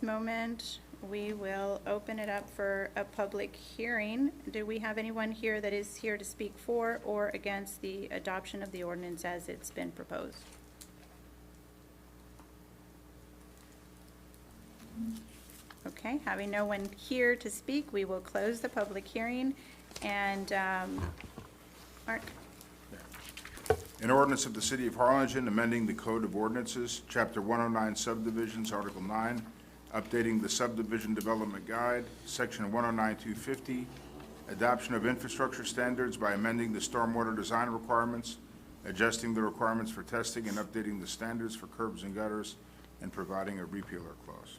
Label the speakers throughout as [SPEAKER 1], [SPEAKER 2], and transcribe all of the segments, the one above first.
[SPEAKER 1] this moment, we will open it up for a public hearing. Do we have anyone here that is here to speak for or against the adoption of the ordinance as it's been proposed? Okay, having no one here to speak, we will close the public hearing. And, um, Mark,
[SPEAKER 2] An ordinance of the City of Harlingen amending the Code of Ordinances, Chapter 109 subdivisions, Article 9, updating the subdivision development guide, Section 109-250, adoption of infrastructure standards by amending the stormwater design requirements, adjusting the requirements for testing and updating the standards for curbs and gutters, and providing a repealer clause.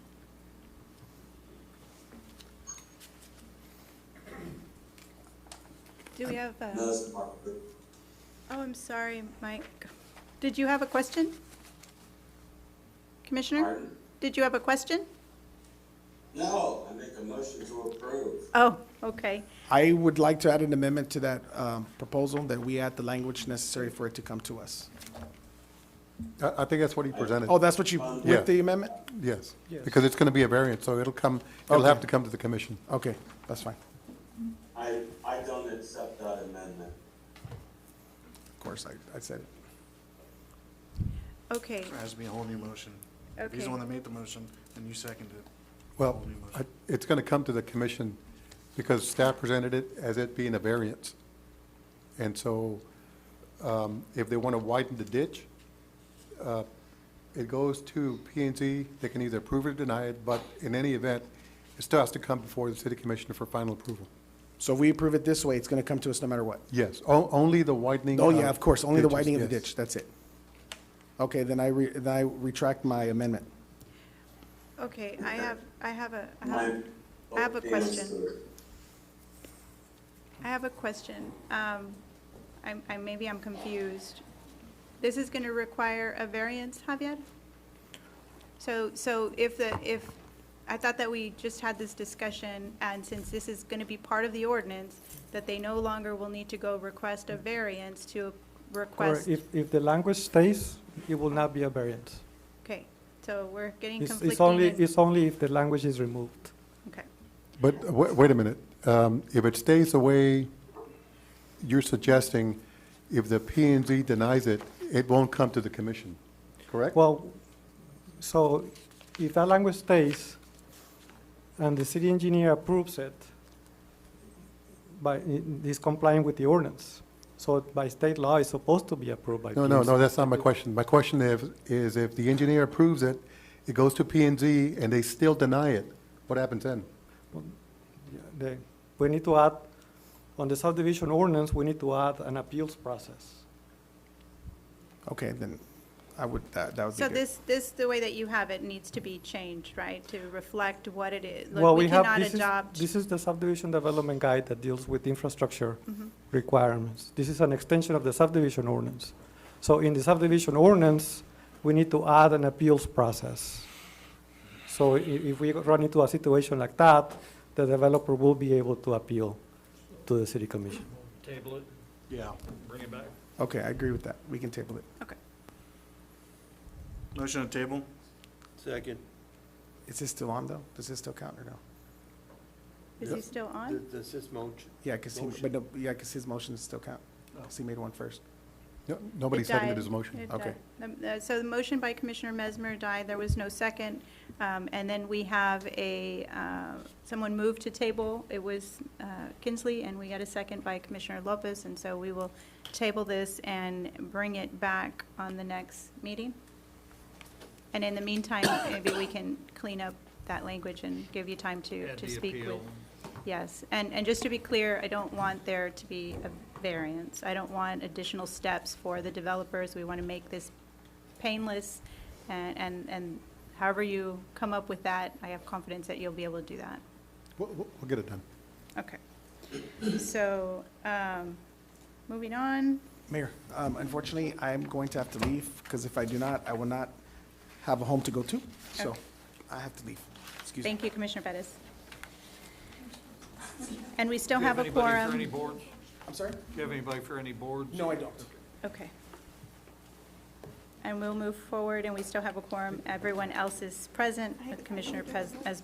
[SPEAKER 1] do we have, uh,
[SPEAKER 3] No, this is Mark.
[SPEAKER 1] oh, I'm sorry, Mike. Did you have a question? Commissioner,
[SPEAKER 3] Pardon?
[SPEAKER 1] did you have a question?
[SPEAKER 3] No, I make a motion to approve.
[SPEAKER 1] Oh, okay.
[SPEAKER 4] I would like to add an amendment to that um, proposal, that we add the language necessary for it to come to us.
[SPEAKER 5] I, I think that's what he presented,
[SPEAKER 4] Oh, that's what you,
[SPEAKER 5] Yeah.
[SPEAKER 4] with the amendment?
[SPEAKER 5] yes. Because it's going to be a variance, so it'll come, it'll have to come to the commission.
[SPEAKER 4] Okay, that's fine.
[SPEAKER 3] I, I don't accept that amendment.
[SPEAKER 4] Of course, I, I said it.
[SPEAKER 1] Okay,
[SPEAKER 6] Has to be a whole new motion. He's
[SPEAKER 1] Okay.
[SPEAKER 6] the one that made the motion, and you seconded it.
[SPEAKER 5] Well,
[SPEAKER 6] Whole new motion.
[SPEAKER 5] I- it's going to come to the commission because staff presented it as it being a variance. And so um, if they want to widen the ditch, uh, it goes to P and Z. They can either approve it or deny it, but in any event, it still has to come before the city commissioner for final approval.
[SPEAKER 4] So if we approve it this way, it's gonna come to us no matter what.
[SPEAKER 5] Yes, o- only the widening.
[SPEAKER 4] Oh, yeah, of course, only the
[SPEAKER 5] ditches,
[SPEAKER 4] widening of the
[SPEAKER 5] yes.
[SPEAKER 4] ditch, that's it. Okay, then I re, then I retract my amendment.
[SPEAKER 1] okay, I have, I have a, I
[SPEAKER 3] My
[SPEAKER 1] have, I have a
[SPEAKER 3] vote fails
[SPEAKER 1] question.
[SPEAKER 3] to-
[SPEAKER 1] I have a question. Um, I'm, I, maybe I'm confused. This is gonna require a variance, Javier? So, so if the, if, I thought that we just had this discussion, and since this is gonna be part of the ordinance, that they no longer will need to go request a variance to
[SPEAKER 7] Correct.
[SPEAKER 1] request.
[SPEAKER 7] If, if the language stays, it will not be a variance.
[SPEAKER 1] Okay, so we're getting
[SPEAKER 7] It's,
[SPEAKER 1] conflicting.
[SPEAKER 7] it's only,
[SPEAKER 1] in-
[SPEAKER 7] it's only if the language is removed.
[SPEAKER 1] Okay,
[SPEAKER 5] But uh, wait, wait a minute, um, if it stays the way you're suggesting, if the P and Z denies it, it won't come to the commission, correct?
[SPEAKER 7] Well, so if that language stays and the city engineer approves it, by, it is complying with the ordinance. So by state law, it's supposed to be approved by.
[SPEAKER 5] No, no,
[SPEAKER 7] PNC.
[SPEAKER 5] no, that's not my question. My question is, is if the engineer approves it, it goes to P and Z and they still deny it, what happens then?
[SPEAKER 7] Yeah, the- We need to add, on the subdivision ordinance, we need to add an appeals process.
[SPEAKER 4] Okay, then I would, that, that would be
[SPEAKER 1] so
[SPEAKER 4] good.
[SPEAKER 1] this, this, the way that you have it needs to be changed, right, to reflect what it is? Like,
[SPEAKER 7] Well, we have,
[SPEAKER 1] cannot
[SPEAKER 7] this is,
[SPEAKER 1] adopt-
[SPEAKER 7] this is the subdivision development guide that deals with infrastructure
[SPEAKER 1] Mm-hmm.
[SPEAKER 7] requirements. This is an extension of the subdivision ordinance. So in the subdivision ordinance, we need to add an appeals process. So i- if we run into a situation like that, the developer will be able to appeal to the city commission.
[SPEAKER 8] Table it,
[SPEAKER 6] Yeah.
[SPEAKER 8] bring it back.
[SPEAKER 4] Okay, I agree with that. We can table it.
[SPEAKER 1] Okay.
[SPEAKER 6] Motion on table?
[SPEAKER 8] Second.
[SPEAKER 4] Is this still on though? Does this still count or no?
[SPEAKER 1] Is he still on?
[SPEAKER 8] Does this motion?
[SPEAKER 4] Yeah, cause he, but no, yeah, cause his motion still count. 'Cause he made one first.
[SPEAKER 5] No- Nobody
[SPEAKER 1] It
[SPEAKER 5] seconded
[SPEAKER 1] died.
[SPEAKER 5] his motion.
[SPEAKER 1] It
[SPEAKER 4] Okay.
[SPEAKER 1] died. The- uh, So the motion by Commissioner Mesmer died, there was no second. Um, And then we have a, uh, someone moved to table, it was uh, Kinsley, and we got a second by Commissioner Lopez, and so we will table this and bring it back on the next meeting. And in the meantime, maybe we can clean up that language and give you time to, to speak with. Yes, and, and just to be clear, I don't want there to be a variance. I don't want additional steps for the developers. We want to make this painless, and, and and however you come up with that, I have confidence that you'll be able to do that.
[SPEAKER 5] We'll, we'll we'll get it done.
[SPEAKER 1] Okay. So, um, moving on,
[SPEAKER 4] Mayor, um, unfortunately, I'm going to have to leave, because if I do not, I will not have a home to go to, so
[SPEAKER 1] Okay.
[SPEAKER 4] I have to leave. Excuse me.
[SPEAKER 1] thank you, Commissioner Bettis. And we still have a quorum.
[SPEAKER 8] Do you have anybody for any boards?
[SPEAKER 4] I'm sorry?
[SPEAKER 8] Do you have anybody for any boards?
[SPEAKER 4] No, I don't.
[SPEAKER 1] Okay. and we'll move forward, and we still have a quorum. Everyone else is present, with Commissioner Pez- as